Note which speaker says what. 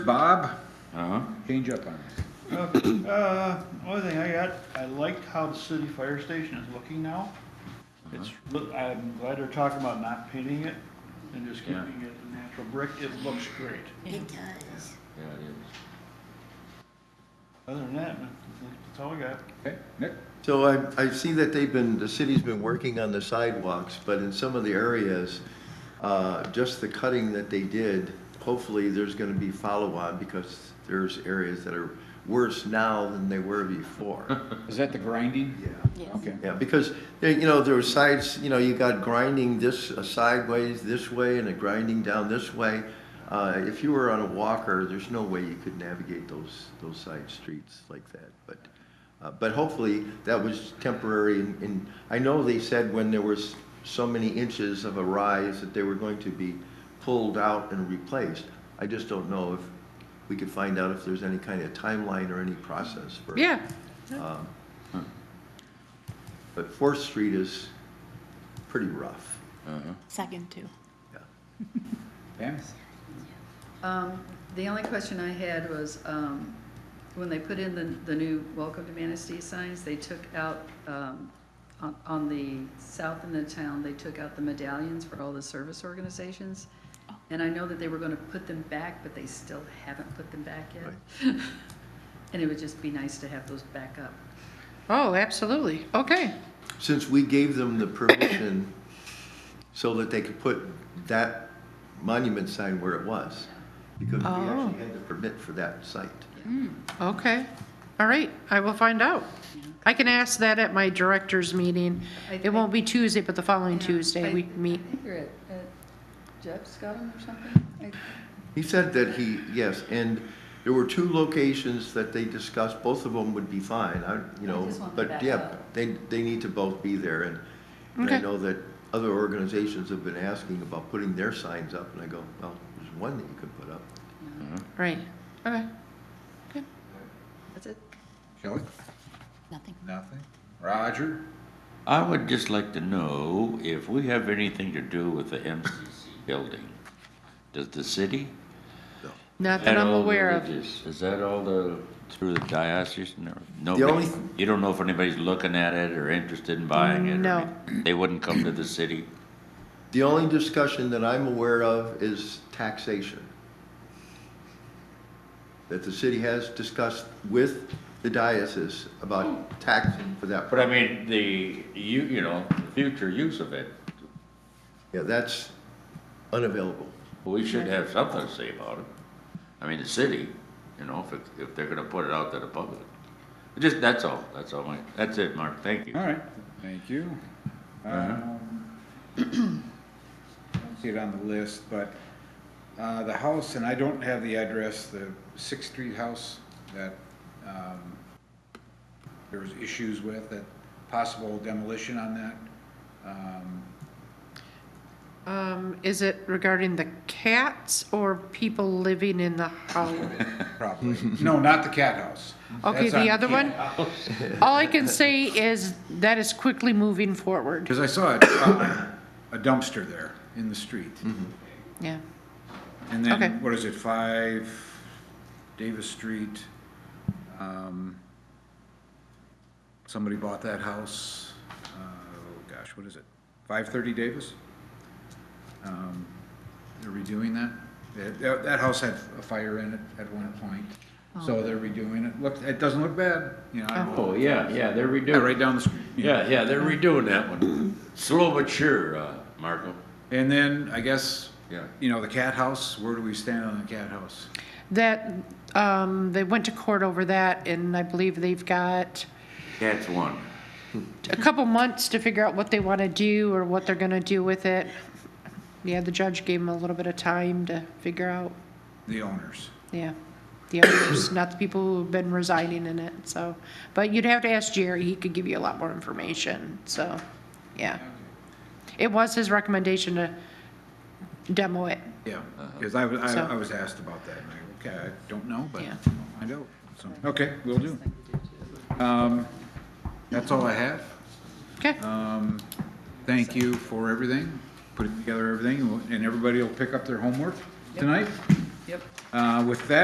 Speaker 1: Bob,
Speaker 2: Uh-huh.
Speaker 1: change up on us.
Speaker 3: Okay, Uh, only thing I got, I liked how the city fire station is looking now. It's,
Speaker 2: Uh-huh.
Speaker 3: look, I'm glad they're talking about not painting it and just
Speaker 2: Yeah.
Speaker 3: keeping it natural brick. It looks great.
Speaker 4: It does.
Speaker 2: Yeah, it is.
Speaker 3: Other than that, that's all I got.
Speaker 1: Okay, Nick?
Speaker 5: So I, I see that they've been, the city's been working on the sidewalks, but in some of the areas, uh, just the cutting that they did, hopefully there's gonna be follow-on because there's areas that are worse now than they were before.
Speaker 1: Is that the grinding?
Speaker 5: Yeah.
Speaker 4: Yes.
Speaker 1: Okay.
Speaker 5: Yeah, because, they- you know, there were sides, you know, you got grinding this uh, sideways this way and a grinding down this way. Uh, If you were on a walker, there's no way you could navigate those, those side streets like that. But, uh, but hopefully that was temporary and- and I know they said when there was so many inches of a rise that they were going to be pulled out and replaced. I just don't know if, we could find out if there's any kind of timeline or any process for.
Speaker 6: Yeah,
Speaker 5: But Fourth Street is pretty rough.
Speaker 2: Uh-huh.
Speaker 4: Second too.
Speaker 1: Pam?
Speaker 7: Um, The only question I had was, um, when they put in the, the new Welcome to Manistee signs, they took out, um, on, on the south end of town, they took out the medallions for all the service organizations.
Speaker 6: Oh.
Speaker 7: And I know that they were gonna put them back, but they still haven't put them back yet. And it would just be nice to have those back up.
Speaker 6: oh, absolutely, okay.
Speaker 5: Since we gave them the permission so that they could put that monument sign where it was, because we actually had the permit for that site.
Speaker 6: Okay, all right, I will find out. I can ask that at my director's meeting.
Speaker 7: I
Speaker 6: It won't be Tuesday, but the following
Speaker 7: Yeah,
Speaker 6: Tuesday
Speaker 7: I-
Speaker 6: we meet.
Speaker 7: I think you're at, at Jeff's got them or something? I-
Speaker 5: He said that he, yes, and there were two locations that they discussed, both of them would be fine, I, you
Speaker 7: I
Speaker 5: know,
Speaker 7: just want them
Speaker 5: but
Speaker 7: back
Speaker 5: yeah,
Speaker 7: up.
Speaker 5: they, they need to both be there, and and I
Speaker 6: Okay.
Speaker 5: know that other organizations have been asking about putting their signs up, and I go, well, there's one that you could put up.
Speaker 6: Right, okay.
Speaker 7: That's it?
Speaker 1: Shelley?
Speaker 4: Nothing.
Speaker 1: Nothing. Roger?
Speaker 2: I would just like to know if we have anything to do with the MCC building. Does the city?
Speaker 6: Not that I'm
Speaker 2: all
Speaker 6: aware of.
Speaker 2: religious? Is that all the, through the diocese and everything?
Speaker 5: only
Speaker 2: Nobody,
Speaker 5: th-
Speaker 2: you don't know if anybody's looking at it or interested in buying it? or
Speaker 6: No.
Speaker 2: any- They wouldn't come to the city?
Speaker 5: The only discussion that I'm aware of is taxation. That the city has discussed with the diocese about taxing for that.
Speaker 2: But I mean, the, you, you know, future use of it,
Speaker 5: Yeah, that's unavailable.
Speaker 2: we should have something to say about it. I mean, the city, you know, if, it- if they're gonna put it out to the public. Just, that's all, that's all, my- that's it, Mark, thank you.
Speaker 1: All right, thank you. Um, I don't See it on the list, but uh, the house, and I don't have the address, the Sixth Street house that um, there was issues with, that possible demolition on that. Um,
Speaker 6: Um, is it regarding the cats or people living in the house?
Speaker 1: Probably. No, not the cat house.
Speaker 6: Okay, the other one? All I can say is that is quickly moving forward,
Speaker 1: Because I saw a uh, a dumpster there in the street.
Speaker 6: yeah.
Speaker 1: And
Speaker 6: Okay.
Speaker 1: then, what is it, five Davis Street? um, Somebody bought that house, uh, oh gosh, what is it? Five thirty Davis? Um, They're redoing that? That- That, that house had a fire in it at one point, so they're redoing it. Look, it doesn't look bad, you know, I-
Speaker 2: Oh, yeah, yeah, they're
Speaker 1: yeah,
Speaker 2: redoing,
Speaker 1: right down the street.
Speaker 2: yeah, yeah, they're redoing that one. Slow but sure, uh, Marco.
Speaker 1: And then, I guess,
Speaker 2: Yeah.
Speaker 1: you know, the cat house, where do we stand on the cat house?
Speaker 6: That, um, they went to court over that and I believe they've got,
Speaker 2: That's one.
Speaker 6: a couple months to figure out what they want to do or what they're going to do with it. Yeah, the judge gave them a little bit of time to figure out,
Speaker 1: The owners.
Speaker 6: yeah, the others, not the people who've been residing in it, so. But you'd have to ask Jerry, he could give you a lot more information, so, yeah. It was his recommendation to demo it,
Speaker 1: Yeah, because I, was-
Speaker 6: So-
Speaker 1: I, I was asked about that, and I, okay, I don't know, but
Speaker 6: Yeah.
Speaker 1: I'll find out. So, Okay, we will do. Um, that's all I have.
Speaker 6: okay?
Speaker 1: Thank you for everything, putting together everything, and everybody will pick up their homework tonight.
Speaker 7: Yep.
Speaker 1: Uh, with that.